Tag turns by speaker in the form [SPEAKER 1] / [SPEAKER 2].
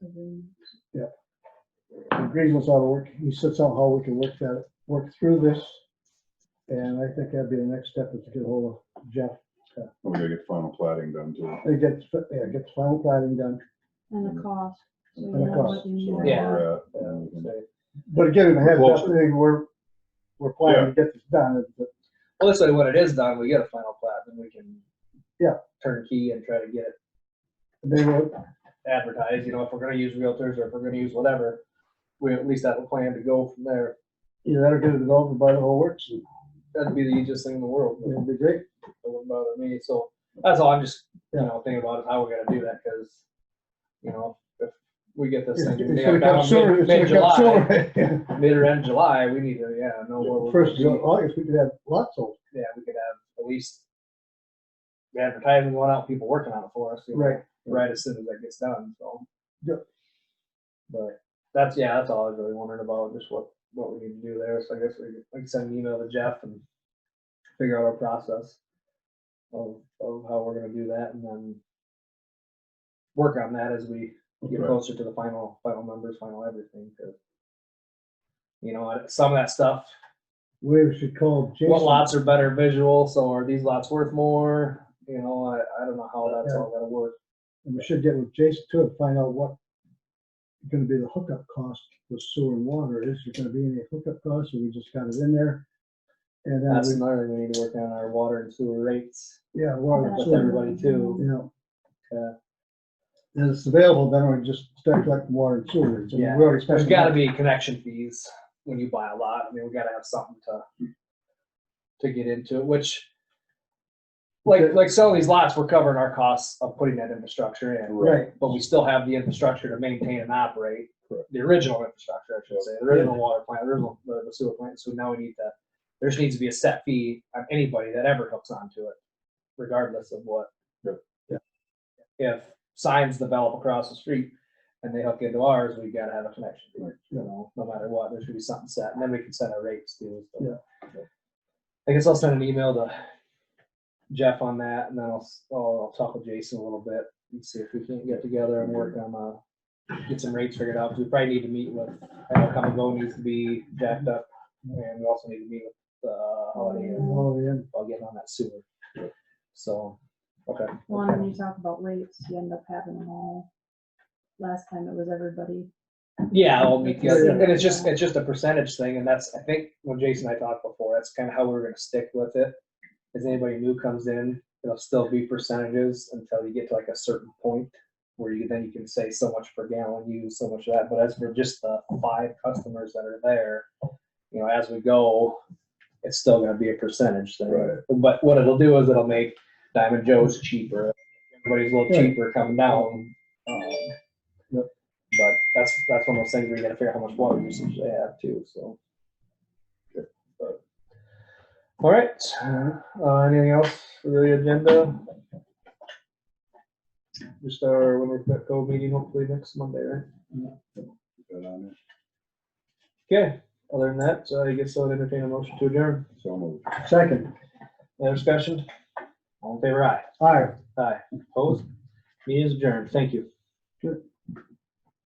[SPEAKER 1] agreements ought to work, he sets out how we can work that, work through this. And I think that'd be the next step is to get hold of Jeff,
[SPEAKER 2] We gotta get final plating done too.
[SPEAKER 1] and get, yeah, get the final planning done.
[SPEAKER 3] And the cost. so you
[SPEAKER 1] And the
[SPEAKER 3] know what you uh,
[SPEAKER 1] cost,
[SPEAKER 2] So
[SPEAKER 3] need.
[SPEAKER 2] where
[SPEAKER 4] Yeah.
[SPEAKER 2] we're at, and we can-
[SPEAKER 1] and- But again, ahead of
[SPEAKER 2] Closer.
[SPEAKER 1] everything, we're, we're planning to get this done, but
[SPEAKER 4] Well, this way, when it is done, we get a final plat, then we can.
[SPEAKER 1] Yeah.
[SPEAKER 4] Turnkey and try to get it
[SPEAKER 1] they were,
[SPEAKER 4] advertised, you know, if we're gonna use realtors or if we're gonna use whatever, we at least have a plan to go from there.
[SPEAKER 1] you know, that'll get it over by the whole works, and
[SPEAKER 4] That'd be the easiest thing in the world, but
[SPEAKER 1] it'll be great.
[SPEAKER 4] it wouldn't bother me, so that's all I'm just, you know, thinking about is how we're gonna do that, cause. You know, if we get this
[SPEAKER 1] It's
[SPEAKER 4] thing.
[SPEAKER 1] gonna come sooner, it's gonna come
[SPEAKER 4] Mid-July,
[SPEAKER 1] sooner.
[SPEAKER 4] mid or end July, we need to, yeah, know where we're.
[SPEAKER 1] First, of
[SPEAKER 4] gonna be.
[SPEAKER 1] August, we could have lots of,
[SPEAKER 4] yeah, we could have at least advertising going out, people working on it for us. you know,
[SPEAKER 1] Right.
[SPEAKER 4] Right as soon as that gets done, so.
[SPEAKER 1] Yep.
[SPEAKER 4] But that's, yeah, that's all I was really wondering about, just what, what we need to do there. So I guess we, could, like, send an email to Jeff and figure out our process of, of how we're gonna do that and then work on that as we get
[SPEAKER 2] Right.
[SPEAKER 4] closer to the final, final numbers, final everything, 'cause, you know, and some of that stuff,
[SPEAKER 1] we should call Jason.
[SPEAKER 4] what lots are better visual, so are these lots worth more? You know, I, I don't know how that's all gonna work.
[SPEAKER 1] And we should get with Jason too and find out what gonna be the hookup cost with sewer and water. Is there gonna be any hookup costs or we just got it in there? And
[SPEAKER 4] That's
[SPEAKER 1] then,
[SPEAKER 4] another thing we need to work on, our water and sewer rates
[SPEAKER 1] we- yeah, water, and
[SPEAKER 3] That's
[SPEAKER 4] with
[SPEAKER 3] what
[SPEAKER 1] sewer,
[SPEAKER 4] everybody
[SPEAKER 1] you
[SPEAKER 4] too.
[SPEAKER 1] know.
[SPEAKER 4] Yeah.
[SPEAKER 1] And it's available, then we just start collecting water and sewer. So we
[SPEAKER 4] Yeah.
[SPEAKER 1] already
[SPEAKER 4] There's
[SPEAKER 1] spent-
[SPEAKER 4] gotta be connection fees when you buy a lot. I mean, we gotta have something to, to get into it, which like, like some of these lots, we're covering our costs of putting that infrastructure in.
[SPEAKER 1] Right,
[SPEAKER 4] but we still have the infrastructure to maintain and operate,
[SPEAKER 2] Correct.
[SPEAKER 4] the original infrastructure, I should say, the original water plant, original the the sewer plant, so now we need to, there just needs to be a set fee on anybody that ever hooks onto it, regardless of what.
[SPEAKER 2] Yep.
[SPEAKER 1] Yeah.
[SPEAKER 4] If signs develop across the street and they hook into ours, we gotta have a connection, fee, you know, no matter what, there should be something set, and then we can set our rates too. so. I guess I'll send an email to Jeff on that, and then I'll, s- I'll I'll talk with Jason a little bit and see if we can get together and work on, uh, get some rates figured out, 'cause we probably need to meet with, I know Come and Go needs to be jacked up, and we also need to meet with, uh, Holiday Inn,
[SPEAKER 1] all in.
[SPEAKER 4] I'll get on that soon. So, okay.
[SPEAKER 3] One, when you talk about rates, you end up having them all. Last time it was everybody.
[SPEAKER 4] Yeah, I'll meet the other,
[SPEAKER 3] Yeah.
[SPEAKER 4] and it's just, it's just a percentage thing, and that's, I think, when Jason and I talked before, that's kind of how we we're gonna stick with it. If anybody new comes in, it'll still be percentages until you get to like a certain point where you, then you can say so much per gallon used, so much of that, but as for just the five customers that are there, you know, as we go, it's still gonna be a percentage thing.
[SPEAKER 2] Right.
[SPEAKER 4] But what it'll do is it'll make Diamond Joe's cheaper, everybody's a little
[SPEAKER 1] Yeah.
[SPEAKER 4] cheaper coming down. um, but that's, that's one of those things where you gotta figure out how much water usage they have too, so. But- All right, uh, anything else for the agenda? Just our, when we're at go meeting, hopefully next Monday, right?
[SPEAKER 2] Got on it.
[SPEAKER 4] Okay, other than that, uh, I guess I'll entertain a motion to adjourn.
[SPEAKER 2] So moved.
[SPEAKER 1] Second,
[SPEAKER 4] Any discussion? All in favor, aye.
[SPEAKER 1] aye.
[SPEAKER 4] Aye. Opposed? Meeting is adjourned. Thank you.
[SPEAKER 1] Good.